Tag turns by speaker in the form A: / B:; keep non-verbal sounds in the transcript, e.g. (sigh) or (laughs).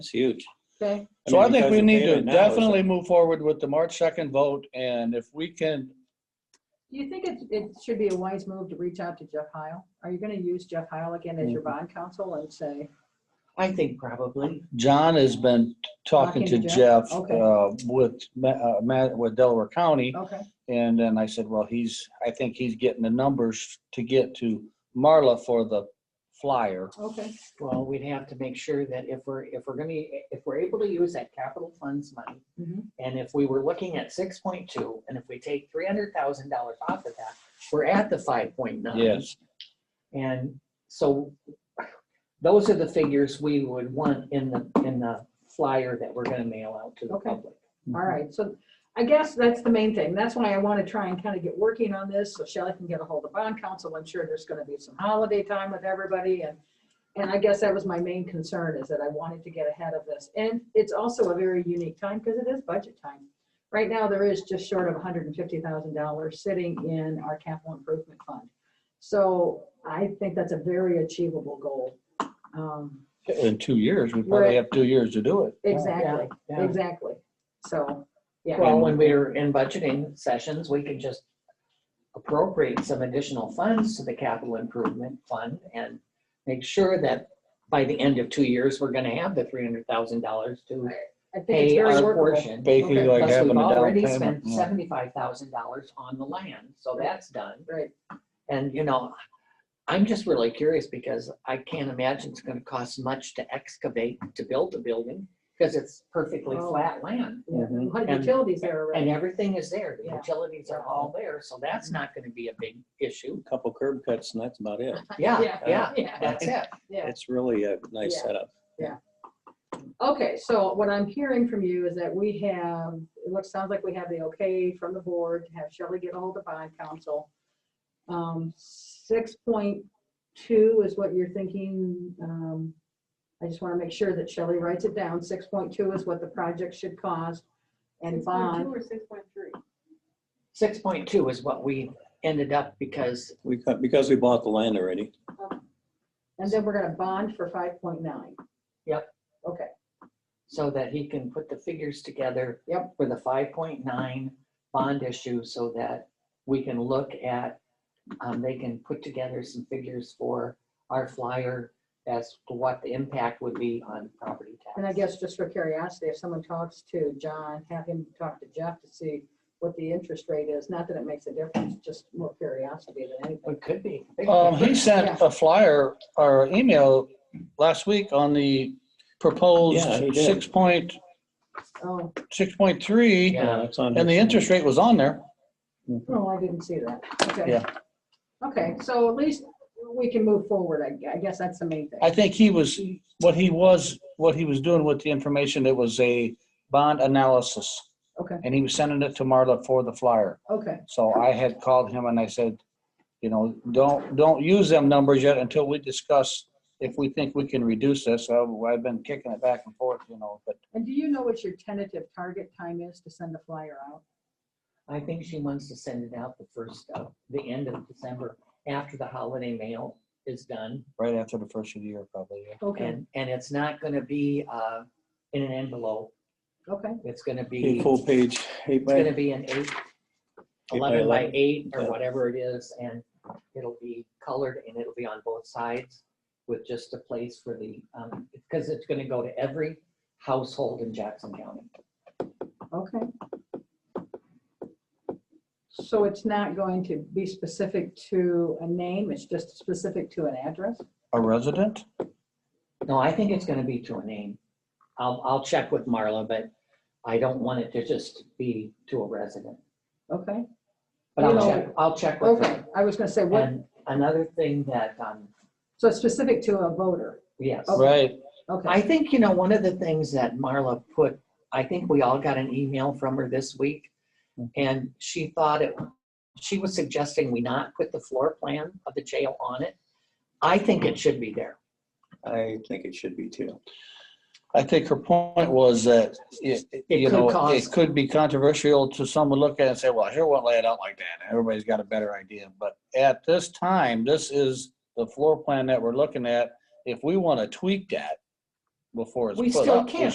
A: It's huge.
B: Okay.
C: So I
A: mean,
C: think
A: because
C: we
A: the
C: need to
A: payment now is-
C: definitely move forward with the March 2nd vote, and if we can,
B: Do you think it, it should be a wise move to reach out to Jeff Heil? Are you gonna use Jeff Heil again as your bond counsel and say,
D: I think probably.
C: John has been talking to
B: Talking to Jeff?
C: Jeff
B: Okay.
C: uh, with, Ma- uh, Ma- with Delaware County,
B: okay,
C: and then I said, well, he's, I think he's getting the numbers to get to Marla for the flyer.
B: okay,
D: Well, we'd have to make sure that if we're, if we're gonna, if we're able to use that capital funds money,
B: Mhm.
D: and if we were looking at six point two, and if we take three hundred thousand dollars off of that, we're at the five point nine.
C: Yes,
D: And so those are the figures we would want in the, in the flyer that we're gonna mail out to the
B: Okay.
D: public.
B: all right. So I guess that's the main thing. That's why I wanna try and kind of get working on this, so Shelley can get a hold of bond counsel. I'm sure there's gonna be some holiday time with everybody and, and I guess that was my main concern is that I wanted to get ahead of this. And it's also a very unique time because it is budget time. Right now, there is just short of hundred and fifty thousand dollars sitting in our capital improvement fund. So I think that's a very achievable goal. Um,
C: in two years, we
B: Right.
C: probably have two years to do it.
B: Exactly,
D: Yeah.
B: exactly. So, yeah.
D: Well, when we're in budgeting sessions, we can just appropriate some additional funds to the capital improvement fund and make sure that by the end of two years, we're gonna have the three hundred thousand dollars to
B: I think it's
D: pay
B: very
D: our
B: workable.
D: portion.
C: Basically
B: Okay.
C: like
D: Plus,
C: having
D: we've
C: a down
D: already
C: payment.
D: spent
C: Yeah.
D: seventy-five thousand dollars on the land, so that's done.
B: Right.
D: And, you know, I'm just really curious because I can't imagine it's gonna cost much to excavate to build a building because it's perfectly
B: Oh.
D: flat land.
B: A lot of
D: Mm-hmm. And-
B: utilities there
D: And
B: already.
D: everything is there, the
B: Yeah. Mm-hmm.
D: utilities are all there, so that's not gonna be a big
B: (laughs)
D: issue.
A: Couple curb cuts and that's about it.
D: Yeah, yeah,
B: Yeah,
D: that's it.
B: yeah.
A: It's really a nice
B: Yeah.
A: setup.
B: Okay, so what I'm hearing from you is that we have, it looks, sounds like we have the okay from the board to have Shelley get ahold of bond council. Um, six point two is what you're thinking. Um, I just want to make sure that Shelley writes it down. Six point two is what the project should cost and bond.
E: Or six point three.
D: Six point two is what we ended up because,
A: We, cut- because we bought the land already.
B: And then we're going to bond for five point nine.
D: Yep.
B: Okay,
D: so that he can put the figures together.
B: Yep.
D: For the five point nine bond issue, so that we can look at, um, they can put together some figures for our flyer as to what the impact would be on property tax.
B: and I guess just for curiosity, if someone talks to John, have him talk to Jeff to see what the interest rate is, not that it makes a difference, just more curiosity than anything.
D: It could be.
C: Um, he sent a flyer or email last week on the proposed
A: Yeah, he did.
C: six point,
B: Oh,
C: six point three,
D: Yeah.
A: Yeah, Uh, it's on
C: and the
A: his-
C: interest rate was on there.
B: no, oh, I didn't see that, okay.
C: Yeah.
B: Okay, so at least we can move forward, I, I guess that's the main thing.
C: I think he was, what he was, what he was doing with the information, it was a bond analysis.
B: Okay.
C: And he was sending it to Marla for the flyer.
B: Okay,
C: So I had called him and I said, you know, don't, don't use them numbers yet until we discuss if we think we can reduce this. So I've been kicking it back and forth, you know, but
B: and do you know what your tentative target time is to send the flyer out?
D: I think she wants to send it out the first, of the end of December, after the holiday mail is done.
C: right after the first of the year, probably. yeah.
B: Okay,
D: And, and it's not gonna be, uh, in an envelope.
B: okay,
D: It's gonna be,
A: Eight
D: it's
A: full page, eight
D: gonna
A: by,
D: be an eight,
A: by
D: eleven by
A: 11,
D: eight or
A: yeah.
D: whatever it is, and it'll be colored and it'll be on both sides with just a place for the, um, because it's gonna go to every household in Jackson County.
B: okay. So it's not going to be specific to a name, it's just specific to an address?
C: A resident?
D: No, I think it's gonna be to a name. I'll, I'll check with Marla, but I don't want it to just be to a resident.
B: Okay,
D: But I'll
B: No.
D: check, I'll check with
B: okay,
D: her.
B: I was gonna say, what,
D: And another thing that, um,
B: so it's specific to a voter,
D: yes.
C: Right.
B: okay,
D: Oh, I think, you know, one of the things that Marla put, I think we all got an email from her this week. Hmm. And she thought it, she was suggesting we not put the floor plan of the jail on it. I think it should be there.
A: I think it should be too.
C: I think her point was that, it- it-
D: It
C: you
D: could
C: know,
D: cause-
C: it could be controversial to someone look at it and say, well, here, won't lay it out like that. Everybody's got a better idea. But at this time, this is the floor plan that we're looking at. If we want to tweak that,
F: before it's
C: We
F: put
C: still
F: up.
C: can't.